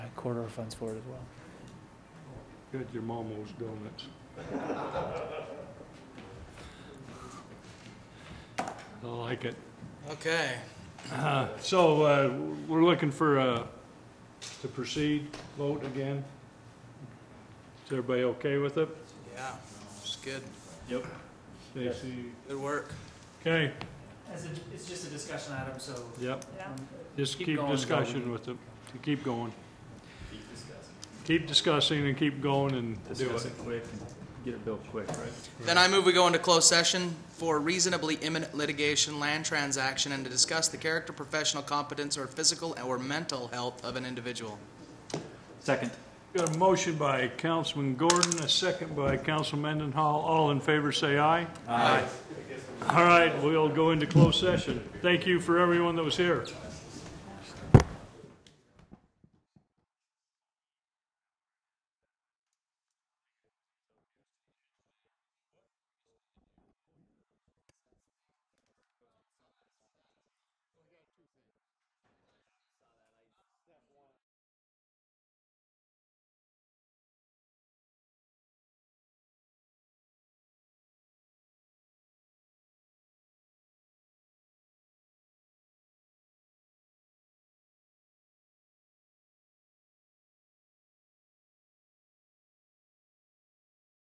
corridor funds for it as well. Got your mama's donuts. I like it. Okay, Uh, So uh, we're looking for, uh, to proceed, vote again. Is everybody okay with it? yeah, it's good, Yep. Stacy, good work. okay, As it's just a discussion item, so. yep, Yeah. just Keep keep going, discussion Sheldon. with it, to keep going. Keep discussing and keep going and do Discuss it. it quick and get it built quick, right? Then I move we go into closed session for reasonably imminent litigation, land transaction, and to discuss the character, professional competence, or physical or mental health of an individual. Second. Got a motion by Councilman Gordon, a second by Councilman Mendenhall. All in favor, say aye. Aye. All right, we'll go into closed session. Thank you for everyone that was here.